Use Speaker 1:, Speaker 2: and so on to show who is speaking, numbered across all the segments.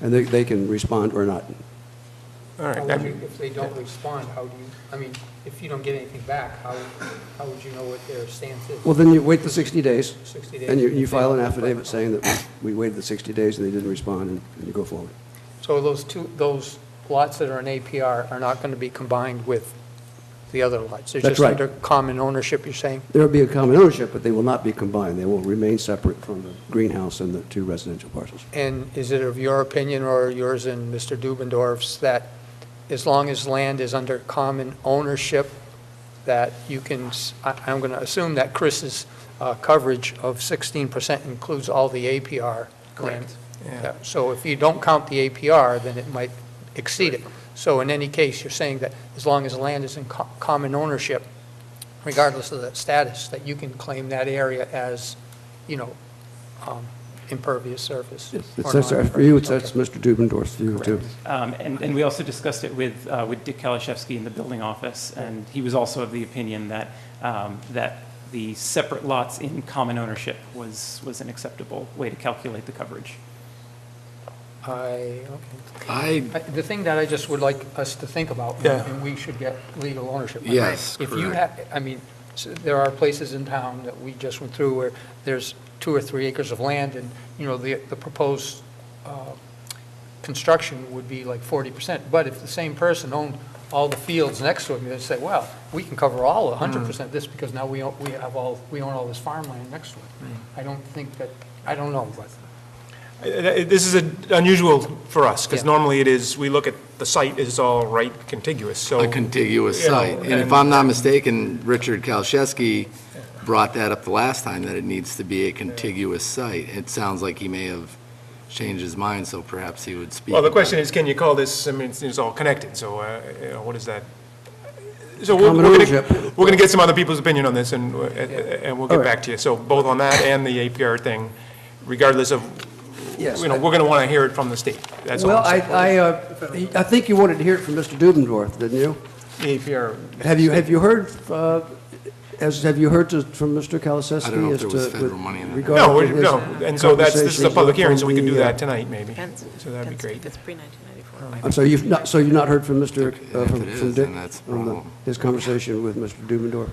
Speaker 1: and they, they can respond or not.
Speaker 2: All right,
Speaker 3: How
Speaker 2: that-
Speaker 3: would you- If they don't respond, how do you, I mean, if you don't get anything back, how, how would you know what their stance is?
Speaker 1: Well, then you wait the 60 days,
Speaker 3: 60 days.
Speaker 1: and you, you
Speaker 3: if they
Speaker 1: file an
Speaker 3: don't-
Speaker 1: affidavit saying that we waited the 60 days and they didn't respond, and- and you go forward.
Speaker 3: So those two, those lots that are in APR are not going to be combined with the other lots?
Speaker 1: That's right.
Speaker 3: They're just under common ownership, you're saying?
Speaker 1: There will be a common ownership, but they will not be combined. They will remain separate from the greenhouse and the two residential parcels.
Speaker 3: And is it of your opinion or yours and Mr. Dubendorf's that as long as land is under common ownership, that you can, s- I- I'm going to assume that Chris's uh, coverage of 16% includes all the APR land?
Speaker 2: yeah.
Speaker 3: Yeah, So if you don't count the APR, then it might exceed it. So in any case, you're saying that as long as the land is in co- common ownership, regardless of that status, that you can claim that area as, you know, um, impervious surface.
Speaker 1: It's-
Speaker 3: or
Speaker 1: It's, that's our
Speaker 3: non-impervious.
Speaker 1: view, it's, that's
Speaker 3: Okay.
Speaker 1: Mr. Dubendorf's view, too.
Speaker 4: Um, And, and we also discussed it with, uh, with Dick Kalaszewski in the building office, and he was also of the opinion that, um, that the separate lots in common ownership was, was an acceptable way to calculate the coverage.
Speaker 3: I,
Speaker 5: I,
Speaker 3: okay. I- The thing that I just would like us to think about,
Speaker 2: Yeah.
Speaker 3: and we should get legal ownership. of.
Speaker 5: Yes,
Speaker 3: If you
Speaker 5: correct.
Speaker 3: have, I mean, s- there are places in town that we just went through where there's two or three acres of land, and, you know, the, the proposed uh, construction would be like 40%. But if the same person owned all the fields next to him, they'd say, well, we can cover all
Speaker 5: Mm.
Speaker 3: 100% of this because now we own, we have all, we own all this farmland next to it.
Speaker 5: Mm.
Speaker 3: I don't think that, I don't know, but
Speaker 2: Uh, uh, This is a- unusual for us, because
Speaker 3: Yeah.
Speaker 2: normally it is, we look at, the site is all right contiguous, so.
Speaker 5: a contiguous
Speaker 2: you know,
Speaker 5: site. And if
Speaker 2: and-
Speaker 5: I'm not mistaken, Richard Kalshewski brought that up the last time, that it needs to be a contiguous site. It sounds like he may have changed his mind, so perhaps he would speak.
Speaker 2: Well, the
Speaker 5: about
Speaker 2: question
Speaker 5: it.
Speaker 2: is, can you call this, I mean, it's- it's all connected, so, uh, you know, what is that? So we're,
Speaker 1: Common
Speaker 2: we're gonna,
Speaker 1: ownership.
Speaker 2: we're gonna get some other people's opinion on this, and, uh, and we'll
Speaker 1: All
Speaker 2: get
Speaker 1: right.
Speaker 2: back to you. So both on that and the APR thing, regardless of,
Speaker 1: Yes.
Speaker 2: you know, we're gonna wanna hear it from the state. That's all
Speaker 1: Well,
Speaker 2: I'm
Speaker 1: I,
Speaker 2: saying.
Speaker 1: I, uh, I think you wanted to hear it from Mr. Dubendorf, didn't you?
Speaker 2: The APR.
Speaker 1: Have you, have you heard, uh, as, have you heard to- from Mr. Kaliseski?
Speaker 5: I don't know if
Speaker 1: as
Speaker 5: there was
Speaker 1: to-
Speaker 5: federal money in that.
Speaker 1: regarding
Speaker 2: No, we-
Speaker 1: his
Speaker 2: no, and so that's, this is a
Speaker 1: conversations
Speaker 2: public hearing, so we
Speaker 1: from
Speaker 2: can do
Speaker 1: the, uh,
Speaker 2: that tonight, maybe.
Speaker 6: That's-
Speaker 2: So that'd be
Speaker 6: that's-
Speaker 2: great. Oh.
Speaker 6: That's pre-1994.
Speaker 1: I'm sorry, you've not, so you've not heard from Mr., uh,
Speaker 5: If
Speaker 1: from
Speaker 5: it
Speaker 1: from
Speaker 5: is,
Speaker 1: Dick?
Speaker 5: then that's a
Speaker 1: on the-
Speaker 5: problem.
Speaker 1: His conversation with Mr. Dubendorf?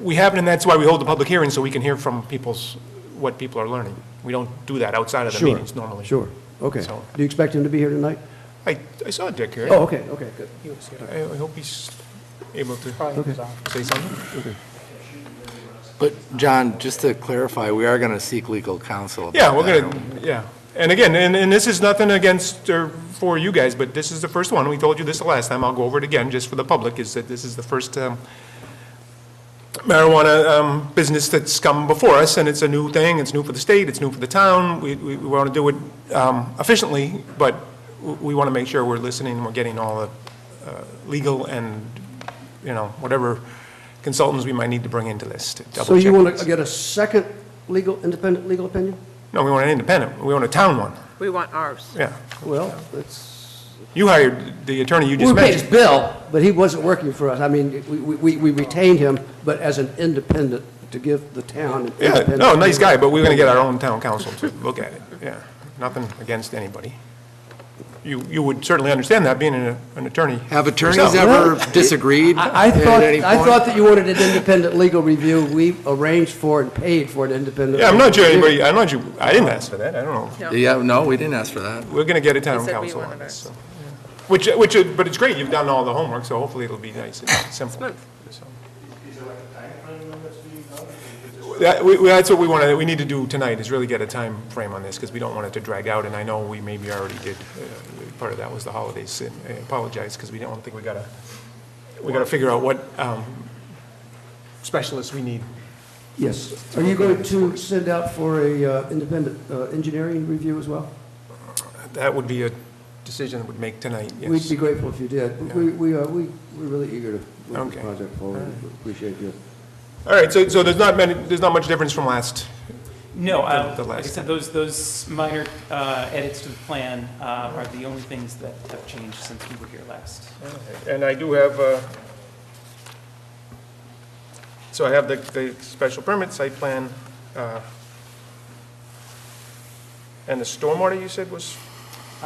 Speaker 2: We haven't, and that's why we hold the public hearing, so we can hear from people's, what people are learning. We don't do that outside of the
Speaker 1: Sure,
Speaker 2: meetings normally.
Speaker 1: sure, okay.
Speaker 2: So-
Speaker 1: Do you expect him to be here tonight?
Speaker 2: I, I saw Dick here.
Speaker 1: Oh, okay, okay, good.
Speaker 3: he was here.
Speaker 2: I I hope he's able to
Speaker 3: Probably was on.
Speaker 2: say something.
Speaker 5: But, John, just to clarify, we are going to seek legal counsel. about
Speaker 2: Yeah, we're
Speaker 5: that,
Speaker 2: gonna,
Speaker 5: aren't
Speaker 2: yeah. And again, and, and this is nothing against or for you guys, but this is the first one. We told you this the last time. I'll go over it again, just for the public, is that this is the first um, marijuana um, business that's come before us, and it's a new thing. It's new for the state, it's new for the town. We, we want to do it um, efficiently, but w- we want to make sure we're listening, we're getting all the uh, legal and, you know, whatever consultants we might need to bring into this to double
Speaker 1: So you
Speaker 2: check
Speaker 1: want
Speaker 2: this.
Speaker 1: to get a second legal, independent legal opinion?
Speaker 2: No, we want an independent. We want a town one,
Speaker 6: We want ours.
Speaker 2: yeah.
Speaker 1: Well, it's,
Speaker 2: You hired the attorney you
Speaker 1: we
Speaker 2: just
Speaker 1: were paid his
Speaker 2: mentioned.
Speaker 1: bill, but he wasn't working for us. I mean, we, we, we retained him, but as an independent, to give the town an
Speaker 2: Yeah,
Speaker 1: independent.
Speaker 2: no, nice guy, but we're gonna get our own town council to look at it, yeah. Nothing against anybody. You, you would certainly understand that, being an an attorney.
Speaker 5: we? Have attorneys
Speaker 2: yourself.
Speaker 5: ever disagreed
Speaker 1: I I
Speaker 5: at
Speaker 1: thought,
Speaker 5: any
Speaker 1: I
Speaker 5: point?
Speaker 1: thought that you wanted an independent legal review. We arranged for and paid for an independent.
Speaker 2: Yeah, I'm not sure
Speaker 1: legal review.
Speaker 2: anybody, I'm not sure, I didn't ask for that, I don't know.
Speaker 6: No.
Speaker 5: Yeah, no, we didn't ask for that.
Speaker 2: We're gonna get a town
Speaker 6: He said we
Speaker 2: council on
Speaker 6: wanted
Speaker 2: this,
Speaker 6: ours.
Speaker 2: so. Which, which, but it's great, you've done all the homework, so hopefully it'll be nice and simple.
Speaker 6: Smooth.
Speaker 2: so. That, we, we- that's what we wanna, we need to do tonight, is really get a time frame on this, because we don't want it to drag out, and I know we maybe already did, uh, part of that was the holidays, and I apologize, because we don't think we gotta, we gotta figure out what, um, specialists we need.
Speaker 1: Yes. Are you going to send out for a uh, independent uh, engineering review as well?
Speaker 2: That would be a decision that would make tonight,
Speaker 1: We'd
Speaker 2: yes.
Speaker 1: be grateful if you did. We, we are, we, we're really eager to move the
Speaker 2: Okay.
Speaker 1: project forward. Appreciate you.
Speaker 2: All right, so, so there's not many, there's not much difference from last,
Speaker 4: No, uh,
Speaker 2: The- the
Speaker 4: like I
Speaker 2: last
Speaker 4: said, those, those minor uh, edits to the plan uh, are the only things that have changed since we were here last.
Speaker 2: And I do have, uh, so I have the, the special permit site plan, uh, and the stormwater you said was